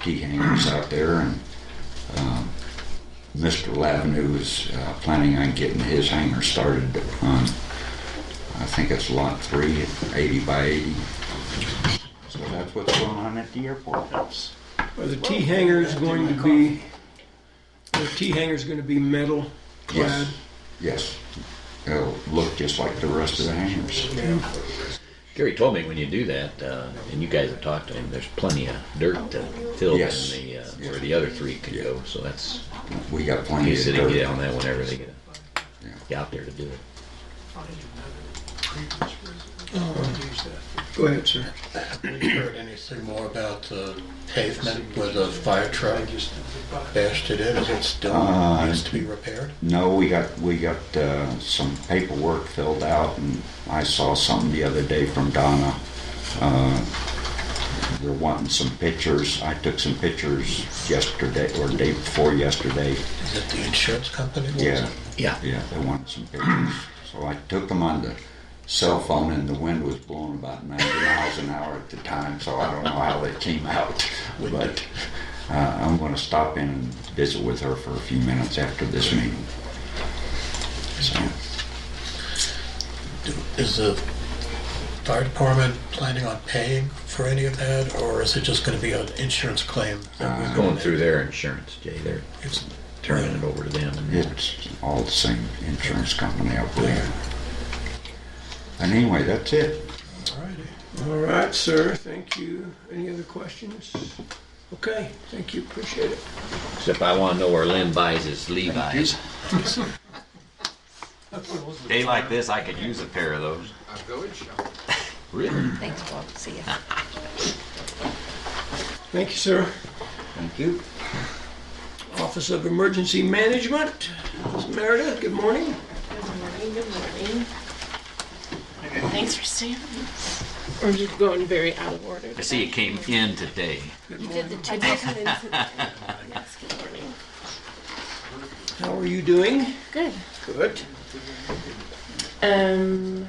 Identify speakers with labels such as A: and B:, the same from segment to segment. A: key hangers out there, and um, Mr. Lavenue is uh, planning on getting his hanger started on, I think it's lot three, 80 by 80. So that's what's going on at the airport. That's
B: Are the T hangers going to be, are the T hangers going to be metal clad?
A: Yes, yes. It'll look just like the rest of the hangers.
C: Gary told me when you do that, uh, and you guys have talked to him, there's plenty of dirt to fill
A: Yes.
C: in the, uh, where the other three could go. So that's,
A: We got plenty
C: he
A: of
C: said he get on
A: dirt.
C: that whenever they get,
A: Yeah.
C: get out there to do it.
B: Go ahead, sir.
D: Have you heard anything more about the pavement where the fire truck bashed it in? Is it still,
A: Uh,
D: needs to be repaired?
A: No, we got, we got uh, some paperwork filled out, and I saw something the other day from Donna. Uh, They're wanting some pictures. I took some pictures yesterday, or day before yesterday.
D: Is it the insurance company? What was
A: Yeah,
D: it?
C: Yeah.
A: yeah, they wanted some pictures. So I took them on the cell phone, and the wind was blowing about 90 miles an hour at the time, so I don't know how they came out. But uh, I'm going to stop in and visit with her for a few minutes after this meeting. So.
D: Do- Is the fire department planning on paying for any of that, or is it just gonna be an insurance claim? that we're
A: Uh,
C: Going through their insurance, Jay, they're
D: It's-
C: turning it over to them. and-
A: It's all the same insurance company, I believe. And anyway, that's it.
D: All righty.
B: All right, sir, thank you. Any other questions? Okay, thank you, appreciate it.
C: Except I wanna know where Lynn buys his Levi's. Day like this, I could use a pair of those.
E: I'm going shopping.
C: Really?
F: Thanks, Bob. See ya.
B: Thank you, sir.
A: Thank you.
B: Office of Emergency Management, Ms. Meredith, good morning.
G: Good morning. Thanks for seeing us. We're just going very out of order.
C: I see it came in today.
G: You did the two. Yes, good morning.
B: How are you doing?
G: Good.
B: Good.
G: Um,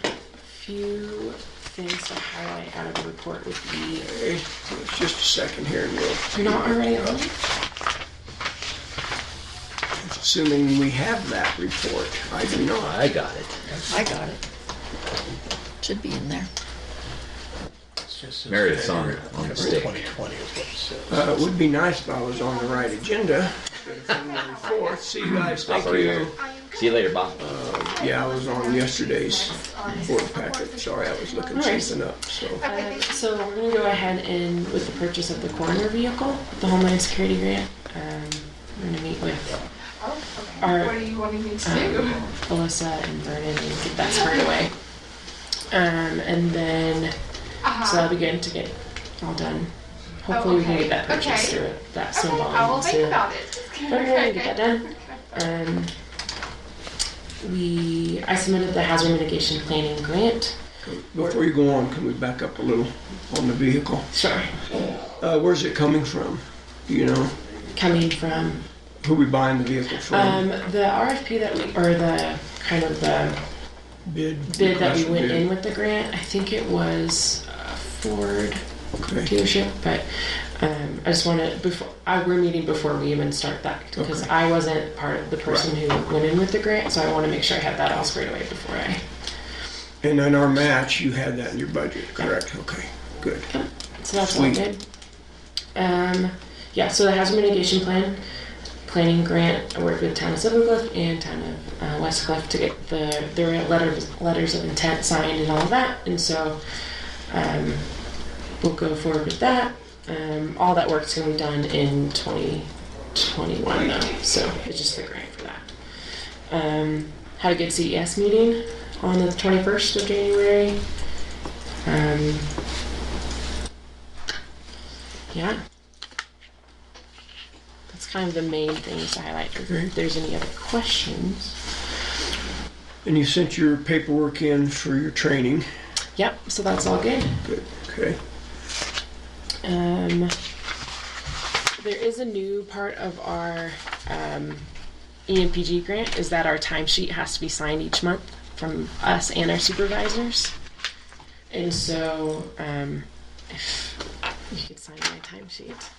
G: few things to highlight out of the report would be,
B: Hey, Just a second here, and we'll
G: you're not already on?
B: assuming we have that report. I do not.
C: I got it.
F: I got it. Should be in there.
D: It's just-
C: Meredith's on it, on the stick.
D: 2020 is what it says.
B: Uh, it would be nice if I was on the right agenda. February 4th, see you guys, thank
C: Sorry.
B: you.
C: See you later, Bob.
B: Yeah, I was on yesterday's board packet, sorry, I was looking
G: Nice.
B: something up, so.
G: Uh, So we're gonna go ahead and with the purchase of the coroner vehicle, the Homeland Security grant, um, we're gonna meet with our
H: Oh,
G: um,
H: What are you wanting me to do?
G: Alyssa and Vernon and get that squared away. Um, and then,
H: Uh-huh.
G: so I'll begin to get all done. Hopefully, we can get that
H: okay,
G: purchase
H: okay.
G: through it, that
H: Okay,
G: snowball.
H: I will
G: soon.
H: think about it.
G: But we're gonna get that done. Um, we, I submitted the hazard mitigation planning grant.
B: Before you go on, can we back up a little on the vehicle?
G: Sure.
B: Uh, where's it coming from? Do you know?
G: Coming from
B: Who we buying the vehicle from?
G: um, the RFP that we, or the kind of the
B: Bid?
G: bid that we
B: request
G: went
B: bid.
G: in with the grant. I think it was uh, Ford.
B: Okay,
G: dealership, but um, I just want to before I, we're meeting before we even start that because
B: Okay.
G: I wasn't part of the person who went in with the grant, so I want to make sure I have that all squared away before I.
B: and then our match, you had that in your budget, correct? Okay, good.
G: So that's all
B: Sweet.
G: good. Um, yeah, so the hazard mitigation plan, planning grant, I worked with town of Silver Cliff and town of uh, West Cliff to get the their letters letters of intent signed and all of that, and so um, we'll go forward with that. Um, all that work's going to be done in 2021 though, so it's just the grant for that. Um, had a good CES meeting on the 21st of January. Um, yeah. That's kind of the main things to highlight. If there's any other questions.
B: And you sent your paperwork in for your training?
G: Yep, so that's all good.
B: Good, okay.
G: Um, there is a new part of our um, EMPG grant is that our timesheet has to be signed each month from us and our supervisors. And so, um, if you could sign my timesheet.